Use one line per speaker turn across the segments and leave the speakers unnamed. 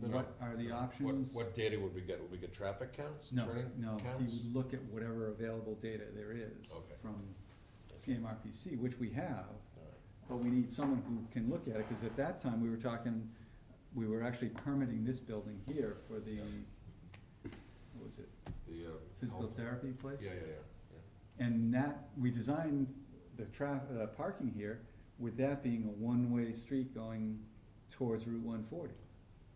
the,
No.
are the
What,
options?
what data would we get? Would we get traffic counts,
No,
turning
no, he
counts?
would look at whatever available data there is
Okay.
from CMRPC, which we have,
All right.
but we need someone who can look at it, cause at that time, we were talking, we were actually permitting this building here for the, what was it,
The, uh.
physical
health-
therapy place?
Yeah, yeah, yeah,
And that, we designed the tra- uh, parking here with that being a one-way street going towards Route one forty.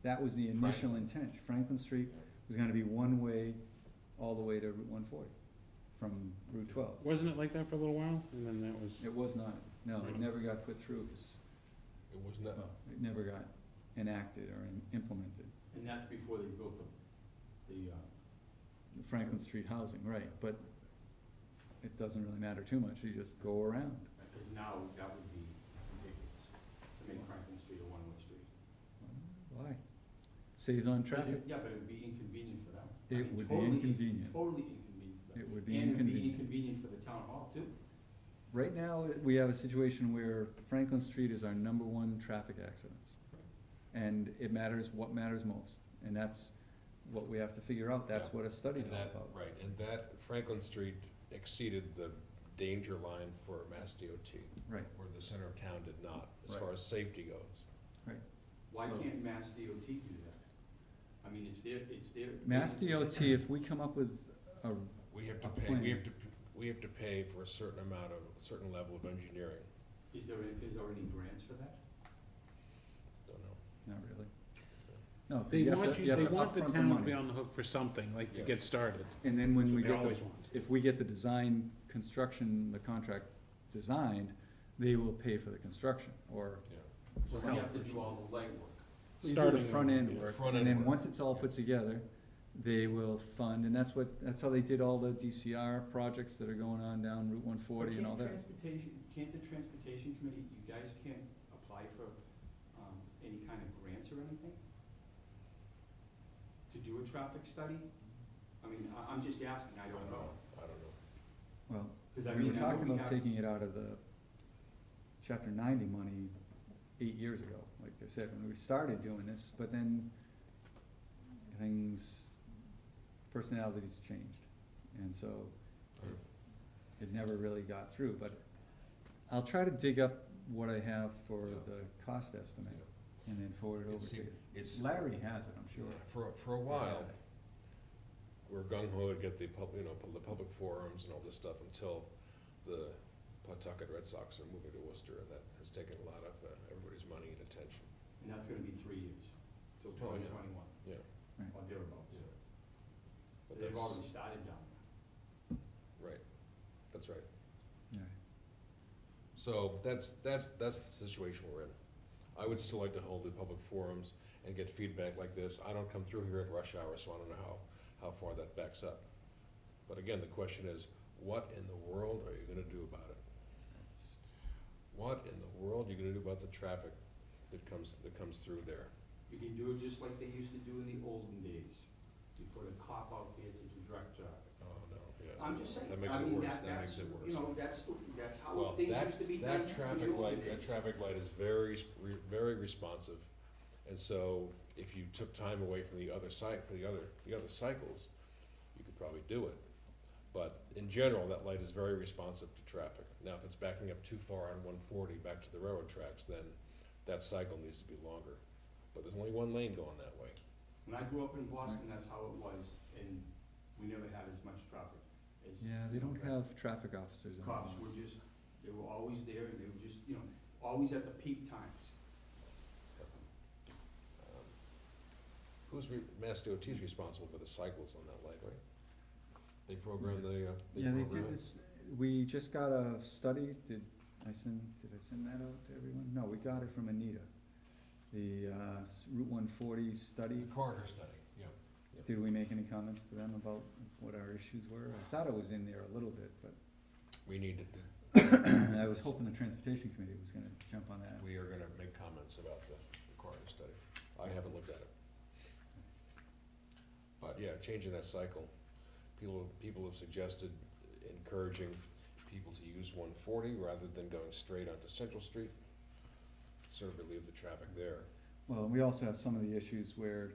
That was the initial intent, Franklin Street was gonna be one-way all the way to Route one forty, from Route twelve.
Wasn't it like that for a little while, and then that was,
It was not, no, it
Right.
never got put through, 'cause,
yeah. It was not,
Oh.
well, it never got enacted or in- implemented.
And that's before they built the, the, uh,
Franklin Street housing, right, but it doesn't really matter too much, you just go around.
because now um, that would be ridiculous to make Franklin Street a one-way street.
Why? Saves on
Because
traffic.
it- Yeah, but it would be inconvenient for them. I
It
mean,
would be
totally in-
inconvenient.
Totally inconvenient for them.
It would be
And it'd be
inconvenient.
inconvenient for the town hall too.
Right now, we have a situation where Franklin Street is our number one traffic accidents. And it matters, what matters most, and that's what we have to figure out, that's
Yeah.
what a study's
and
all
that,
about.
right, and that Franklin Street exceeded the danger line for Mass DOT,
Right,
where the center of town did not, as
Right.
far as safety goes.
Why
So-
can't Mass DOT do that? I mean, it's their, it's their.
Mass DOT, if we come up with a,
We have to
A
pay,
plan.
we have to, p- we have to pay for a certain amount of, a certain level of engineering,
Is there, is there any grants for that?
don't know.
not really. No, 'cause
they
you have
want
to-
you,
you have
they
to
want the
upfront
town to be
money.
on the hook for something, like to
Yeah.
get started,
And then when
that's
we
what they
get the
always want.
if we get the design, construction, the contract designed, they will pay for the construction, or
Yeah.
So
Well,
we have to do all the legwork.
you do the
Starting
front
in-
end
yeah,
work,
front
and then
end work,
once it's all put
yeah.
together, they will fund, and that's what, that's how they did all the DCR projects that are going on down Route one forty and all
But
that.
Can't transportation, can't the transportation committee, you guys can't apply for, um, any kind of grants or anything? To do a traffic study? I mean, I, I'm just asking, I don't know,
I don't know.
Well,
cause I
we were
mean, I know
talking
we
about
have,
taking it out of the chapter ninety money eight years ago, like I said, when we started doing this, but then things, personalities changed, and so
Hmm.
it never really got through, but I'll try to dig up what I have for
Yeah.
the cost estimate and then forward it
And
over to
see-
you.
It's,
Larry has it, I'm sure.
for, for a while, we're gung ho to get the pub, you know, pu- the public forums and all this stuff until the Pawtucket Red Sox are moving to Worcester, and that has taken a lot of uh, everybody's money and attention.
and that's gonna be three years, till
Oh, yeah.
twenty twenty-one.
Yeah.
Right.
Or thereabouts.
Yeah. But
They've
that's,
already started down there.
right, that's right.
Yeah.
So that's, that's, that's the situation we're in. I would still like to hold the public forums and get feedback like this. I don't come through here at rush hour, so I don't know how, how far that backs up. But again, the question is, what in the world are you gonna do about it?
That's-
What in the world are you gonna do about the traffic that comes, that comes through there?
You can do it just like they used to do in the olden days. You put a cop out there to direct traffic.
Oh, no, yeah.
I'm just saying,
That
I
makes it
mean,
worse,
that,
that
that's,
makes it
you
worse.
know, that's, the- that's how
Well,
things used to be
that,
done in
that
the
traffic
olden
light, that
days.
traffic light is very, sp- re- very responsive. And so if you took time away from the other site, from the other, the other cycles, you could probably do it. But in general, that light is very responsive to traffic. Now, if it's backing up too far on one forty back to the railroad tracks, then that cycle needs to be longer. But there's only one lane going that way.
When I grew up in Boston, that's how it was, and we never had as much traffic as.
Yeah, they don't have traffic officers anymore.
Cops were just, they were always there, and they were just, you know, always at the peak times.
Um, Who's, re- Mass DOT is responsible for the cycles on that light, right? They program the, uh, they
Yeah, they
program
did
it.
this, we just got a study, did I send, did I send that out to everyone? No, we got it from Anita. The, uh, s- Route one forty study,
corridor study, yeah.
did we make any comments to them about what our issues were? I thought it was in there a little bit, but
We need to,
I was hoping the transportation committee was gonna jump on that.
we are gonna make comments about the corridor study. I haven't looked at it. But yeah, changing that cycle. People, people have suggested encouraging people to use one forty rather than going straight onto Central Street. Sort of relieve the traffic there.
Well, we also have some of the issues where